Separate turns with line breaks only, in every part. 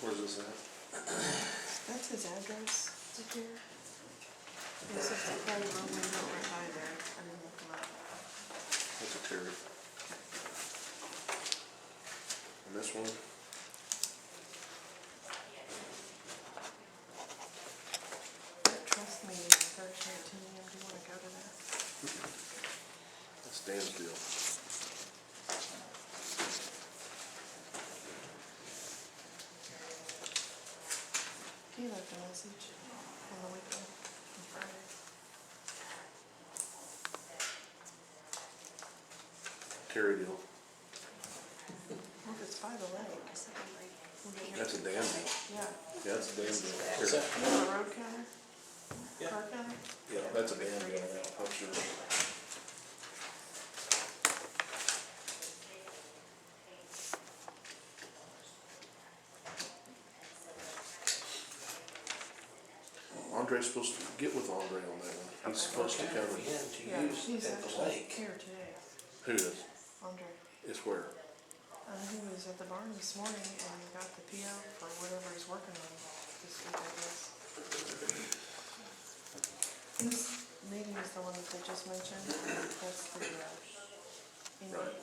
Where's this at?
That's his address to here. This is the phone line we don't right by there. I didn't look him up.
That's a Terry. And this one?
But Trust me, Thursday at ten AM, do you wanna go to that?
That's Dan's deal.
He left a message on the weekend, on Friday.
Terry deal.
Well, if it's by the lake. we'll get
That's a Dan deal.
Yeah.
Yeah, that's a Dan deal. Terry.
Is that-
You know, road counter?
Yeah.
Car counter?
Yeah, that's a Dan deal now, I'm sure. Andre's supposed to, get with Andre on that one. He's supposed to
Okay,
cover.
we had to
Yeah,
use
he's
at the
actually
lake.
here today,
Who is?
Andre.
It's where?
Uh, he was at the barn this morning and he got the PO for whatever he's working on this week, I guess. This meeting is the one that they just mentioned, that's the, uh, you know,
Right.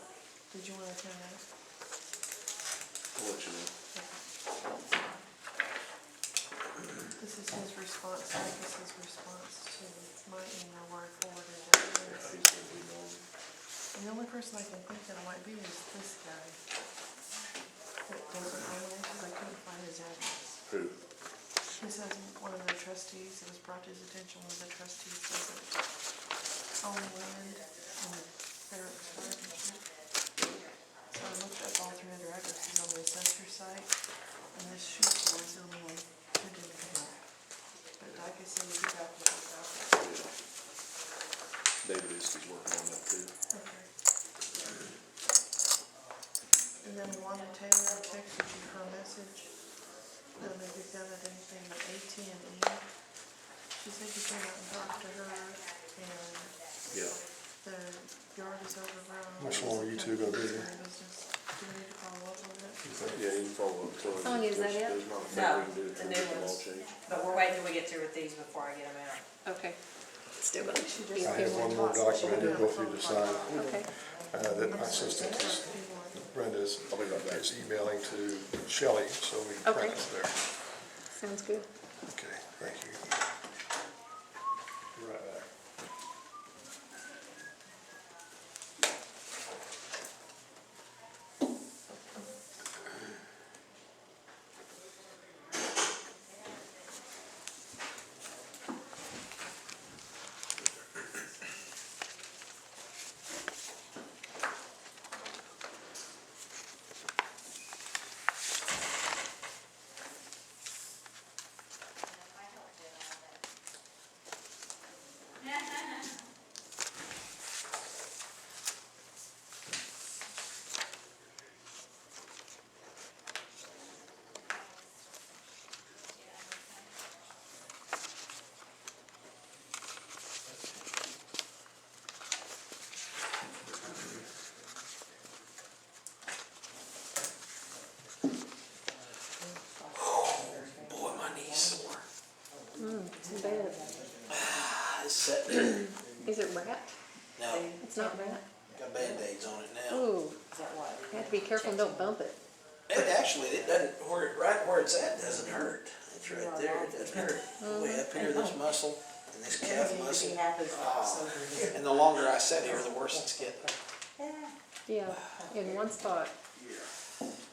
did you wanna attend that?
I'll let you know.
This is his response, like this is response to my email where I forwarded it. to
Yeah,
him.
he's gonna be known.
And the only person I can think that it might be is this guy. That doesn't know it, 'cause I couldn't find his address.
Who?
He says one of the trustees, it was brought to his attention, one of the trustees doesn't own land and they're partnership. So I looked up all three other addresses on the assessor site and this shoot was the only one who didn't come up. But like I said, we could back with that.
Yeah. David is, he's working on that too.
Okay. And then Wanda Taylor I texted you her message. Um, if you've got anything but AT and E, she said you came out and talked to her and
Yeah.
the yard is overgrown.
How much longer you two gonna be here?
Business. Do we need to follow up on that?
Yeah, you can follow up. Tell him
How long is that
there's-
yet?
There's not a
No,
thing we can do
the
to
new
make the law
ones.
change.
But we're waiting till we get through with these before I get them out.
Okay. Let's do it.
She
Be
just.
a
I have one more document to go through to sign,
Okay.
uh, that my assistant is, Brenda's, is emailing to Shelley, so we can
Okay.
practice there.
Sounds good.
Okay, thank you. Right back.
Boy, my knees sore.
Too bad.
I was sitting there.
Is it rat?
No,
It's not rat.
got Band-Aids on it now.
Ooh,
Is that what?
you have to be careful and don't bump it.
It actually, it doesn't, where, it- right where it's at doesn't hurt. It's right there, it doesn't hurt. Way up here, this muscle and this calf muscle. Ah. And the longer I sit here, the worse it's getting.
Yeah, in one spot.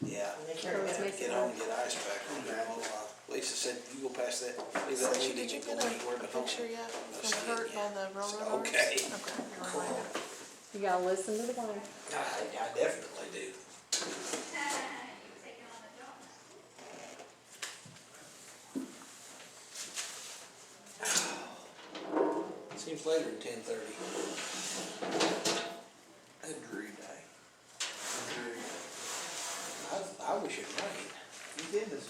Yeah.
Sure, it's making
Get home, and get ice pack. I'll be a little while. Lisa said, you go past that, leave that
Did
lady,
you
you
get
go anywhere
a
but home.
picture yet
No
from
skin,
Kurt
yeah.
on the railroad
So,
arms?
okay.
Okay. you're
Cool.
right.
You gotta listen to the wife.
I, I definitely do. Seems later than ten thirty. Agreed. I, I wish it rained. You did this.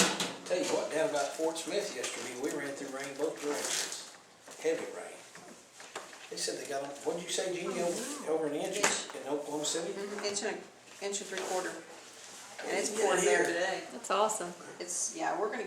Tell you what, down about Fort Smith yesterday, we ran through rain both directions, heavy rain. They said they got, what'd you
Oh,
say, Gene, over- over an inch in Oklahoma City?
Inch and, inch and three quarter.
Mm-hmm. And it's pouring there today.
That's awesome.
It's, yeah, we're gonna